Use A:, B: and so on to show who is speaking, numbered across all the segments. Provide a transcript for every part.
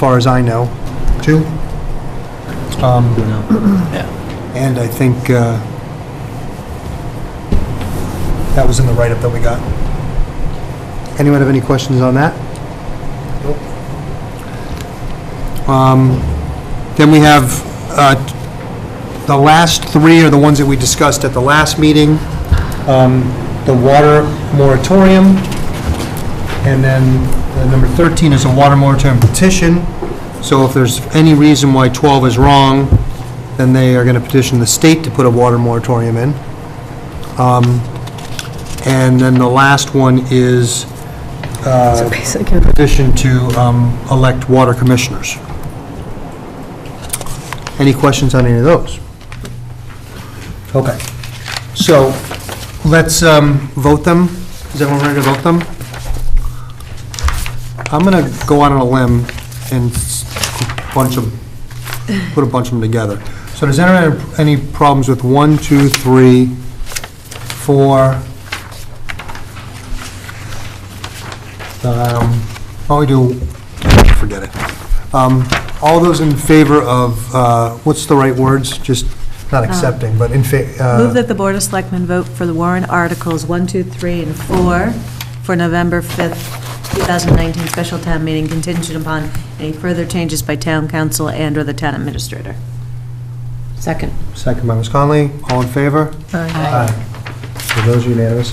A: far as I know, two. Um, And I think uh, that was in the write-up that we got. Anyone have any questions on that? Um, Then we have, uh, the last three are the ones that we discussed at the last meeting. Um, The water moratorium, and then uh, number 13 is a water moratorium petition. So if there's any reason why 12 is wrong, then they are going to petition the state to put a water moratorium in. Um, And then the last one is uh,
B: Basic info.
A: petition to um, elect water commissioners. Any questions on any of those? Okay. So let's um, vote them. Is everyone ready to vote them? I'm going to go out on a limb and s- bunch them, put a bunch of them together. So does anyone have any problems with one, two, three, four? Um, Why don't we do, forget it. Um, All those in favor of, uh, what's the right words? Just not accepting, but in fa,
C: Uh, Move
A: uh,
C: that the Board of Selectmen vote for the warrant articles 1, 2, 3, and 4 for November 5th, 2019 special town meeting contingent upon any further changes by town council and/or the town administrator.
B: Second.
A: second by Ms. Conley, all in favor? Aye. So those are unanimous.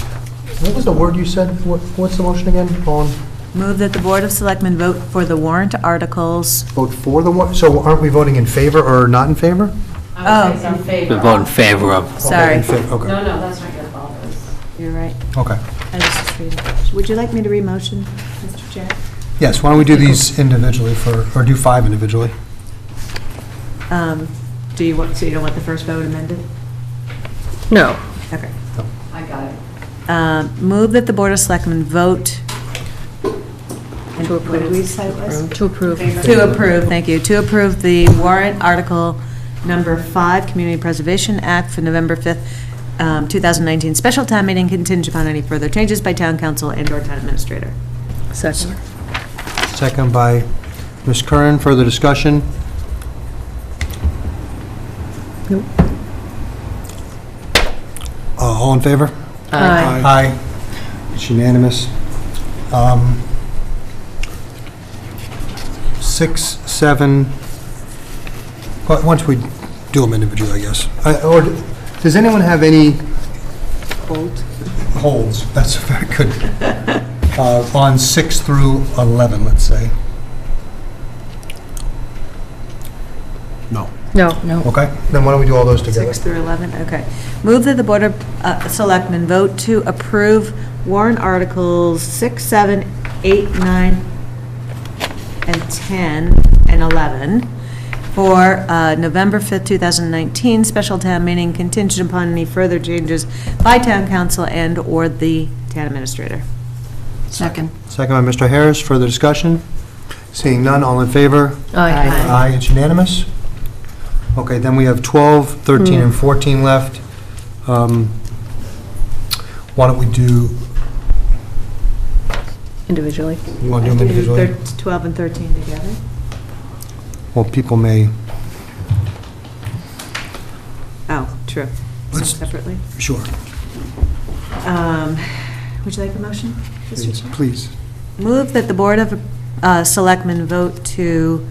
A: What was the word you said? What- What's the motion again? All in,
C: Move that the Board of Selectmen vote for the warrant articles,
A: vote for the one, so aren't we voting in favor or not in favor?
C: Oh.
D: I would say it's in favor.
E: We vote in favor of.
A: Okay, in
C: sorry,
A: favor, Okay,
D: No, no, that's not your fault. It's-
C: you're right.
A: okay.
C: I was just reading. Would you like me to re-motion, Mr. Chair?
A: Yes, why don't we do these individually for, or do five individually?
C: Um, Do you want, so you don't want the first vote amended?
B: No.
C: Okay.
D: I got it.
C: Um, Move that the Board of Selectmen vote
B: To
C: What did we say it was?
B: approve. To approve.
C: To approve, thank you, to approve the warrant article number five, Community Preservation Act for November 5th, um, 2019, special town meeting contingent upon any further changes by town council and/or town administrator.
B: Second.
A: Second by Ms. Curran, further discussion?
B: Nope.
A: Uh, All in favor?
B: Aye.
A: Aye. It's unanimous. Um, Six, seven, but once we do them individually, I guess. I- Or, d- does anyone have any? Holds. Holds, that's very good. Uh, On six through 11, let's say. No.
B: No. No.
A: Okay, then why don't we do all those together?
C: Six through 11, okay. Move that the Board of uh, Selectmen vote to approve warrant articles 6, 7, 8, 9, and 10, and 11 for uh, November 5th, 2019, special town meeting contingent upon any further changes by town council and/or the town administrator.
B: Second.
A: Second by Mr. Harris, further discussion? Seeing none, all in favor?
B: Aye.
A: Aye, it's unanimous. Okay, then we have 12, 13, and 14 left. Um, Why don't we do,
B: Individually.
A: you want to Oh, do them individually?
C: Thir- 12 and 13 together?
A: Well, people may,
C: Oh, true. Some
A: Let's-
C: Separately.
A: sure,
C: Um, Would you like a motion, Mr.
A: please,
C: Chair?
A: please.
C: Move that the Board of uh, Selectmen vote to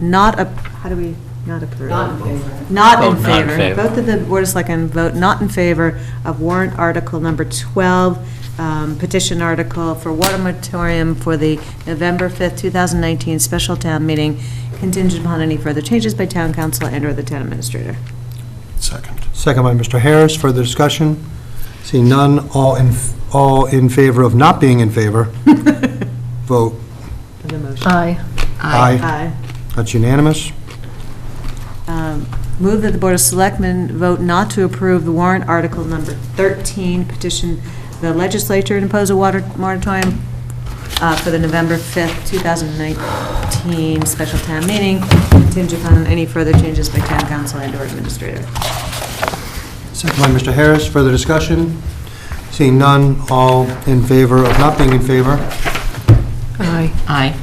C: not, ap- how do we, not approve?
D: Not in favor.
C: Oh, Not in
E: Vote not in
C: favor.
E: favor.
C: Vote that the Board of Selectmen vote not in favor of warrant article number 12, um, petition article for water moratorium for the November 5th, 2019 special town meeting contingent upon any further changes by town council and/or the town administrator.
A: Second. Second by Mr. Harris, further discussion? Seeing none, all in, all in favor of not being in favor? Vote
C: The motion.
B: Aye.
A: aye.
C: Aye.
A: That's unanimous.
C: Um, Move that the Board of Selectmen vote not to approve the warrant article number 13, petition the legislature to impose a water moratorium uh, for the November 5th, 2019 special town meeting, contingent upon any further changes by town council and/or administrator.
A: Second by Mr. Harris, further discussion? Seeing none, all in favor of not being in favor?
B: Aye.
A: Aye.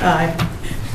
C: Aye.